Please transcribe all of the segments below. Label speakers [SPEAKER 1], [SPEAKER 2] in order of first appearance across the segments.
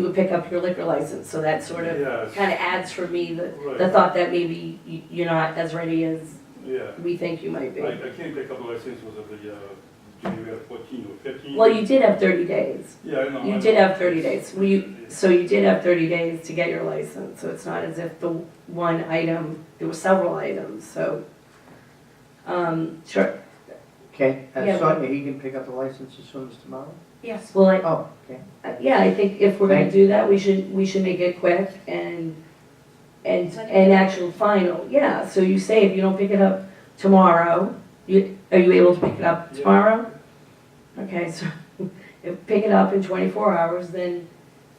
[SPEAKER 1] would pick up your liquor license, so that sort of,
[SPEAKER 2] Yes.
[SPEAKER 1] kind of adds for me the, the
[SPEAKER 2] Right,
[SPEAKER 1] thought that maybe y- you're not as ready as
[SPEAKER 2] yeah.
[SPEAKER 1] we think you might
[SPEAKER 2] I,
[SPEAKER 1] be.
[SPEAKER 2] I can't pick up the license was of the, uh, January fourteen or fifteen.
[SPEAKER 1] Well, you did have thirty days.
[SPEAKER 2] Yeah, I know. I
[SPEAKER 1] You did
[SPEAKER 2] know.
[SPEAKER 1] have thirty days. We, so you did have thirty days to get your license, so it's not as if the one item, there were several items, so. Um, sure,
[SPEAKER 3] Okay,
[SPEAKER 1] Yeah,
[SPEAKER 3] and so he can pick up the license as soon as tomorrow?
[SPEAKER 1] yes, well, I-
[SPEAKER 3] Oh, okay.
[SPEAKER 1] I, Uh, yeah, I think if we're gonna
[SPEAKER 3] Thank
[SPEAKER 1] do that, we should, we should make it quick and, and, and actual final, yeah, so you say if you don't pick it up tomorrow, you, are you able to pick it up
[SPEAKER 2] Yeah.
[SPEAKER 1] tomorrow? Okay, so, if, pick it up in twenty-four hours, then,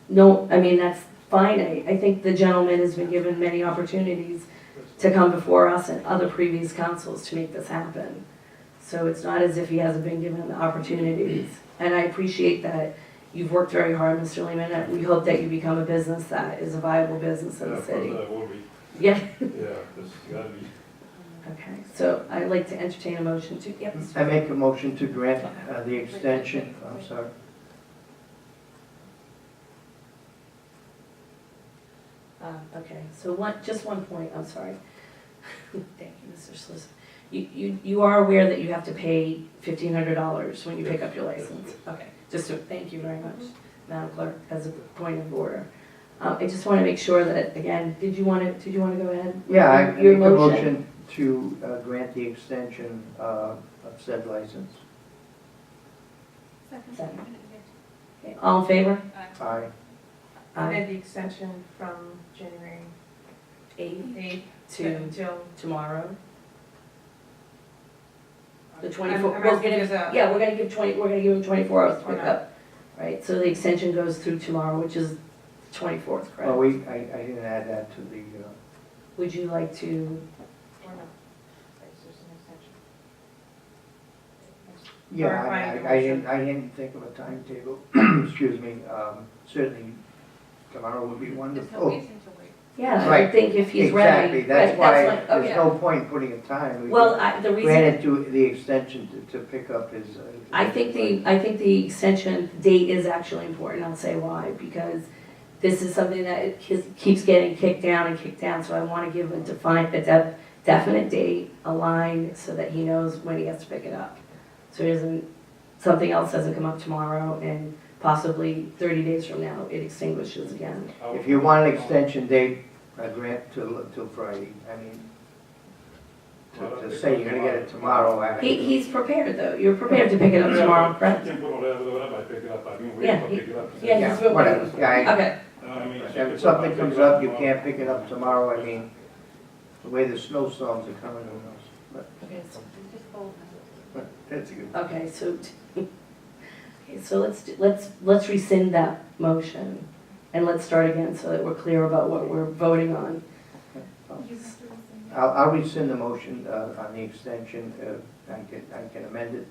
[SPEAKER 1] no, I mean, that's fine, I, I think the gentleman has been given many opportunities to come before us and other previous councils to make this happen. So it's not as if he hasn't been given the opportunities, and I appreciate that You've worked very hard, Mr. Lehman, and we hope that you become a business that is a viable business in
[SPEAKER 2] Yeah,
[SPEAKER 1] the
[SPEAKER 2] of course
[SPEAKER 1] city.
[SPEAKER 2] I will be.
[SPEAKER 1] Yeah,
[SPEAKER 2] Yeah, that's gotta be.
[SPEAKER 1] okay, so I'd like to entertain a motion to, yep, Mr.
[SPEAKER 3] I make a motion to grant uh, the extension, I'm sorry.
[SPEAKER 1] Um, Okay, so one, just one point, I'm sorry. Thank you, Mr. Solicitor. You, you, you are aware that you have to pay fifteen hundred dollars when you pick up your license? Okay, just, to- thank you very much, Madam Clerk, as a point of order. Uh, I just want to make sure that, again, did you want to, did you want to go ahead? with
[SPEAKER 3] Yeah, I I make
[SPEAKER 1] Your
[SPEAKER 3] a
[SPEAKER 1] motion?
[SPEAKER 3] motion to uh, grant the extension uh, of said license.
[SPEAKER 1] Second. Okay, All in favor?
[SPEAKER 3] Aye.
[SPEAKER 4] I
[SPEAKER 1] Aye.
[SPEAKER 4] had the extension from January
[SPEAKER 1] Eight.
[SPEAKER 4] 8th
[SPEAKER 1] to
[SPEAKER 4] until.
[SPEAKER 1] tomorrow. The
[SPEAKER 4] I'm-
[SPEAKER 1] 24
[SPEAKER 4] I'm
[SPEAKER 1] we're
[SPEAKER 4] asking
[SPEAKER 1] gonna-
[SPEAKER 4] as a-
[SPEAKER 1] Yeah, we're gonna give twenty, we're gonna give them twenty-four hours to pick
[SPEAKER 4] Okay.
[SPEAKER 1] up, right? So the extension goes through tomorrow, which is twenty-fourth,
[SPEAKER 3] Well,
[SPEAKER 1] correct?
[SPEAKER 3] we, Oh, I, I didn't add that to the, uh,
[SPEAKER 1] Would you like to,
[SPEAKER 4] or no. It's just an extension.
[SPEAKER 3] yeah, I-
[SPEAKER 4] Clarifying
[SPEAKER 3] I, I
[SPEAKER 4] motion.
[SPEAKER 3] didn't, I didn't think of a timetable, excuse me. Um, Certainly tomorrow would be
[SPEAKER 5] There's
[SPEAKER 3] wonderful.
[SPEAKER 5] no reason to wait.
[SPEAKER 1] yeah, I
[SPEAKER 3] Right.
[SPEAKER 1] think if he's ready.
[SPEAKER 3] Exactly, that's
[SPEAKER 1] right,
[SPEAKER 3] why,
[SPEAKER 1] that's what-
[SPEAKER 3] there's
[SPEAKER 1] okay.
[SPEAKER 3] no point putting a time. We
[SPEAKER 1] Well, I, the reason,
[SPEAKER 3] Granted to the extension to, to pick up his. uh,
[SPEAKER 1] I think the, I think the extension date is actually important, I'll say why, because this is something that it keeps- keeps getting kicked down and kicked down, so I wanna give a defined, a def- definite date, a line, so that he knows when he has to pick it up. So it isn't, something else doesn't come up tomorrow, and possibly thirty days from now, it extinguishes again.
[SPEAKER 2] I'll-
[SPEAKER 3] If you want an extension date, I grant till, till Friday, I mean,
[SPEAKER 2] Well,
[SPEAKER 3] to,
[SPEAKER 2] I'll
[SPEAKER 3] to
[SPEAKER 2] pick
[SPEAKER 3] say
[SPEAKER 2] up
[SPEAKER 3] you're gonna get it tomorrow, I.
[SPEAKER 1] He, he's prepared, though, you're prepared to pick it up tomorrow,
[SPEAKER 2] I
[SPEAKER 1] correct?
[SPEAKER 2] can put all that, whatever, I pick it up, I mean,
[SPEAKER 1] Yeah,
[SPEAKER 2] wait, i
[SPEAKER 1] he-
[SPEAKER 2] pick it up.
[SPEAKER 1] yeah, he's
[SPEAKER 3] Yeah, whatever, yeah,
[SPEAKER 1] Okay,
[SPEAKER 2] You know what I mean?
[SPEAKER 3] I-
[SPEAKER 2] So
[SPEAKER 3] if
[SPEAKER 2] pick it up, I
[SPEAKER 3] something
[SPEAKER 2] pick
[SPEAKER 3] comes
[SPEAKER 2] it
[SPEAKER 3] up, you
[SPEAKER 2] tomorrow.
[SPEAKER 3] can't pick it up tomorrow, I mean, the way the snowstorms are coming, who knows? But
[SPEAKER 1] okay, so
[SPEAKER 5] Just hold them.
[SPEAKER 3] That's a good.
[SPEAKER 1] Okay, so, t- okay, so let's, do- let's, let's rescind that motion, and let's start again, so that we're clear about what we're voting on. Oh.
[SPEAKER 3] I'll, I'll rescind the motion uh, on the extension, uh, I can, I can amend it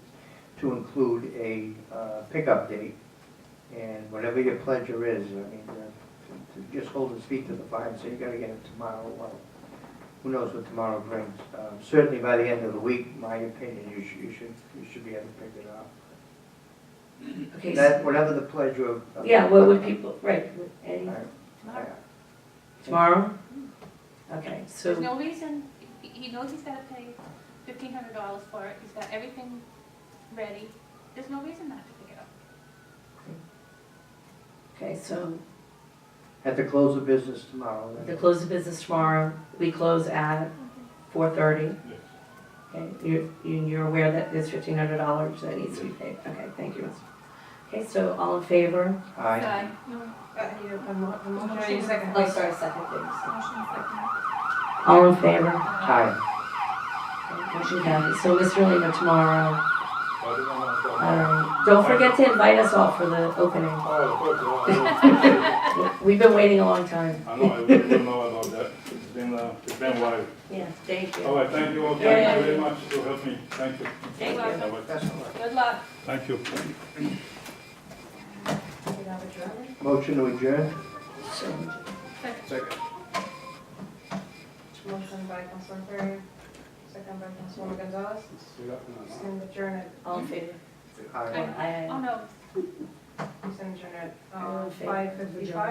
[SPEAKER 3] to include a uh, pickup date, and whatever your pleasure is, I mean, uh, to- to just hold his feet to the fire and say, you gotta get it tomorrow, well, who knows what tomorrow brings. Um, Certainly by the end of the week, my opinion, you should, you should, you should be able to pick it up.
[SPEAKER 1] Okay, so-
[SPEAKER 3] That, whatever the pleasure of. of-
[SPEAKER 1] yeah, what would people, right, would
[SPEAKER 3] I-
[SPEAKER 1] any,
[SPEAKER 3] I-
[SPEAKER 1] tomorrow? Okay,
[SPEAKER 5] There's
[SPEAKER 1] so,
[SPEAKER 5] no reason, He- he knows he's gotta pay fifteen hundred dollars for it, he's got everything ready, there's no reason not to pick it up.
[SPEAKER 1] okay, so
[SPEAKER 3] At the close of business tomorrow. then.
[SPEAKER 1] the close of business tomorrow, we close at four thirty.
[SPEAKER 2] Yes.
[SPEAKER 1] Okay, you're, you- you're aware that there's fifteen hundred dollars that needs to be paid, okay, thank you. Okay, so all in favor?
[SPEAKER 3] Aye.
[SPEAKER 5] Aye.
[SPEAKER 4] Uh, you know, a mo- a motion, I need a second.
[SPEAKER 1] Oh, sorry, second, please.
[SPEAKER 5] Motion second.
[SPEAKER 1] All in favor?
[SPEAKER 3] Aye.
[SPEAKER 1] Motion carries. So Mr. Lima tomorrow,
[SPEAKER 2] I don't know how to-
[SPEAKER 1] um, don't forget to invite us all for the opening.
[SPEAKER 2] Oh, of course, I
[SPEAKER 1] We've been waiting a long time.
[SPEAKER 2] know. I know, I really don't know about that, it's been, uh, it's been a while.
[SPEAKER 1] Yeah, thank
[SPEAKER 2] All right, thank you all,
[SPEAKER 1] Yeah.
[SPEAKER 2] thank you very much, for helping me, thank you.
[SPEAKER 1] Thank you.
[SPEAKER 2] All right,
[SPEAKER 3] That's all right.
[SPEAKER 5] Good luck.
[SPEAKER 2] Thank you.
[SPEAKER 4] You know, the drawing.
[SPEAKER 3] Motion to adjourn?
[SPEAKER 4] Motion by Councilor Perry, second by Councilor Gonzalez, send adjourn it,
[SPEAKER 1] All in favor?
[SPEAKER 3] Aye.
[SPEAKER 5] Oh, no,
[SPEAKER 4] send adjourn at
[SPEAKER 1] All in favor of
[SPEAKER 4] five fifty-five.